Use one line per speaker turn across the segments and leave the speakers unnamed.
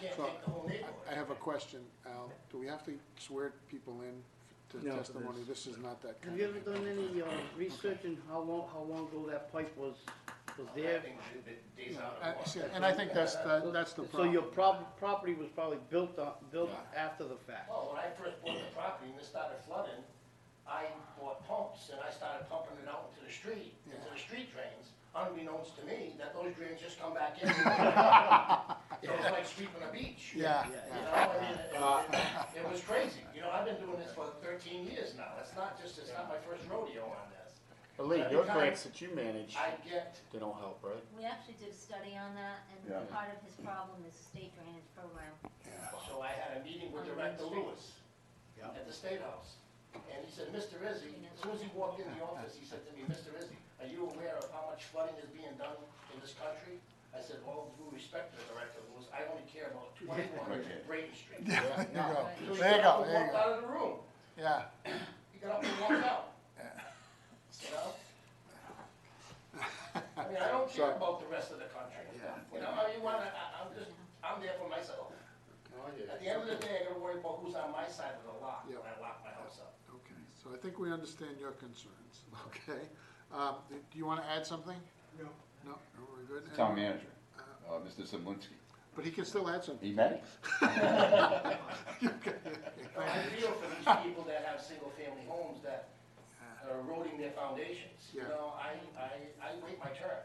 can't
So,
take the whole neighborhood.
I have a question, Al. Do we have to swear people in to
No.
testimony? This is not that
Have
kind
you
of.
ever done any, uh, research in how long, how long ago that pipe was, was
I
there?
think it- it days
Yeah,
out of
I-
order.
Uh, see, And I think that's, the- that's the
So your
problem.
prob- property was probably built on, built
Yeah.
after the fact.
Well, when I first bought the property and it started flooding, I bought pumps and I started pumping it out into the street, into the street drains, unbeknownst to me, that those drains just come back in. It was like sweeping a beach.
Yeah, Uh.
You
yeah.
know, I mean, it- it- it was crazy, you know, I've been doing this for thirteen years now, it's not just, it's not my first rodeo on this.
But Lee, your grants that you manage,
I get,
they don't help, right?
We actually did a study on that, and part of his problem is the state drainage program.
so I had a meeting with Director Lewis
Yeah.
at the State House, and he said, Mr. Izzy, as soon as he walked in the office, he said to me, Mr. Izzy, are you aware of how much flooding is being done in this country? I said, all due respect to Director Lewis, I only care about twenty-one Brayton Street.
Yeah, there you go.
So he
There you
got
go,
up and
there
walked
you go.
out of the room,
Yeah.
he got up and walked out. You know? I mean, I don't care about the rest of the country. You know, I mean, wanna, I, I'm just, I'm there for myself. At the end of the day, I gotta worry about who's on my side of the lot when I lock my house up.
Okay, so I think we understand your concerns, okay? Um, do you want to add something? No. No, we're good?
Town manager, uh, Mr. Simlinski,
But he can still add something.
he met us.
But I feel for these people that have single-family homes that are eroding their foundations. You
Yeah.
know, I, I, I wait my turn,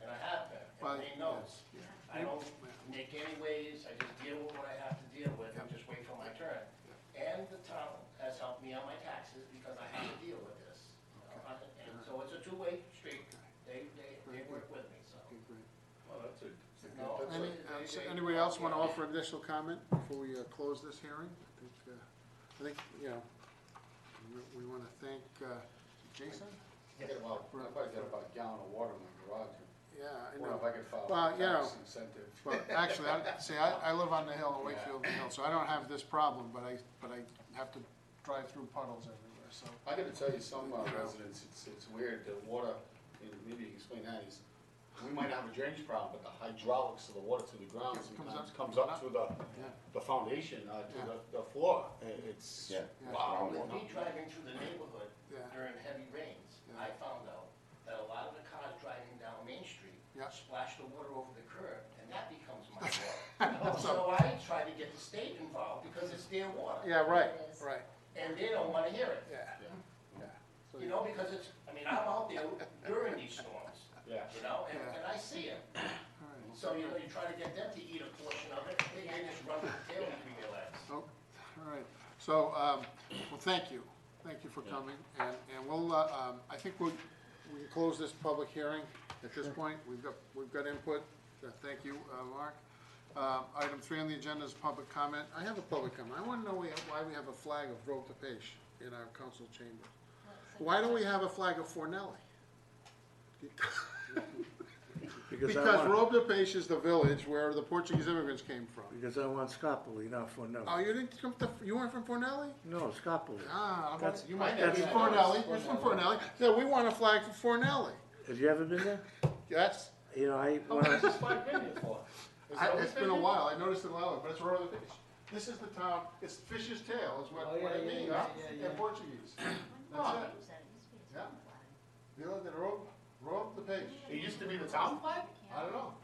and I have been,
Well,
and they knows.
yeah,
I don't make any waves, I just deal with what I have to deal with, and just wait for my turn. And the town has helped me on my taxes because I have to deal with this. you know, And so it's a two-way street, they, they, they work with me, so.
Okay, great.
you know,
Any, uh, so anybody else want to offer additional comment before we uh, close this hearing? I think, uh, I think, you know, we- we want to thank uh, Jason?
Yeah, well, I probably got about a gallon of water in my garage.
Yeah, I
Wonder
know.
if I could file
Well,
a
you know,
tax incentive.
Well, actually, I, see, I, I live on the hill in Wakefield Hill, so I don't have this problem, but I, but I have to drive through puddles everywhere, so.
I gotta tell you, some uh, residents, it's, it's weird, the water, and maybe you can explain that, is, we might have a drainage problem, but the hydraulics of the water to the ground
Comes up.
sometimes comes up to the,
Yeah.
the foundation, uh,
Yeah.
to the, the floor, I- it's,
Yeah.
wow.
With me driving through the neighborhood
Yeah.
during heavy rains, I found out that a lot of the cars driving down Main Street
Yeah.
splash the water over the curb, and that becomes my water. So I try to get the state involved because it's their water.
Yeah, right,
It is.
right,
And they don't wanna hear it,
yeah, yeah. So
you know, because it's, I mean, I'm out there during these storms,
Yeah.
you know, and,
Yeah.
and I see it.
all right.
So, you know, you try to get them to eat a portion of it, they they just run with the tail between their legs.
Oh, all right, so, um, well, thank you, thank you for coming, and, and we'll, uh, um, I think we'll, we can close this public hearing at this point, we've got, we've got input, Uh, thank you, uh, Mark. Um, item three on the agenda is public comment, I have a public comment, I wanna know we- why we have a flag of Vote to Page in our council chamber. Why don't we have a flag of Fornelli?
Because
Because Robe de Peixe is the village where the Portuguese immigrants came from.
because I want Scopoli, not for no.
Oh, you didn't come to, you weren't from Fornelli?
No, Scopoli.
Ah, I'm-
That's-
you might
that's-
be Fornelli, it's from Fornelli, yeah, we want a flag for Fornelli,
Have you ever been there?
yes.
You know, I,
How
when I-
much is my opinion for? Is
I-
that
It's been a
opinion?
while, I noticed it a while, but it's Royal Fish. This is the town, it's Fish's Tail is
Oh,
what,
yeah,
what it
yeah,
means
yeah, yeah, yeah.
in Portuguese.
When
That's
did they use that? It used to be
Oh. Yeah.
a town flag.
You know, the Robe, Robe the Peixe,
It used to be the town flag?
I don't know.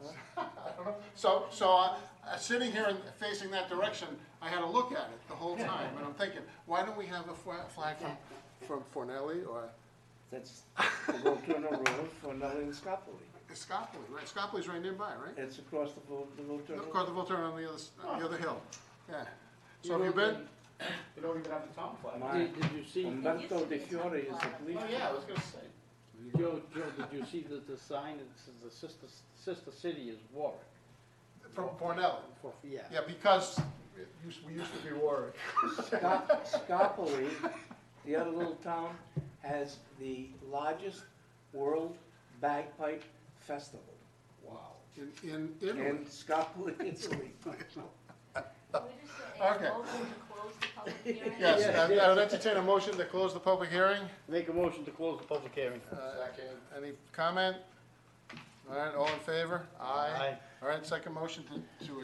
I don't know, so, so, uh, uh, sitting here and facing that direction, I had to look at it the whole time, and I'm thinking, why don't we have a fla- flag from, from Fornelli or
that's, I go to another road for nothing in Scopoli.
Scopoli, right, Scopoli's right nearby, right?
It's across the, Vol- the Volturno.
Of course, the Volturno on the other, s- on the other hill, yeah. So have you been,
They don't even have the town flag.
My-
Did, did you see,
Umberto De Fiore is the police.
Oh, yeah, I was gonna say.
Joe, Joe, did you see that the sign that says the sister, sister city is Warwick?
from Fornelli?
For, yeah.
Yeah, because it used- we used to be Warwick.
Scop- Scopoli, the other little town, has the largest world bagpipe festival
In, in
in
Italy.
Scopoli, Italy.
We just asked
Uh, Okay.
Oakland to close the public hearing.
Yes,
Yeah.
I I would entertain a motion to close the public hearing. Uh,
Make a motion to close the public hearing.
Any comment? All right, all in favor? Aye. All right, second motion to, to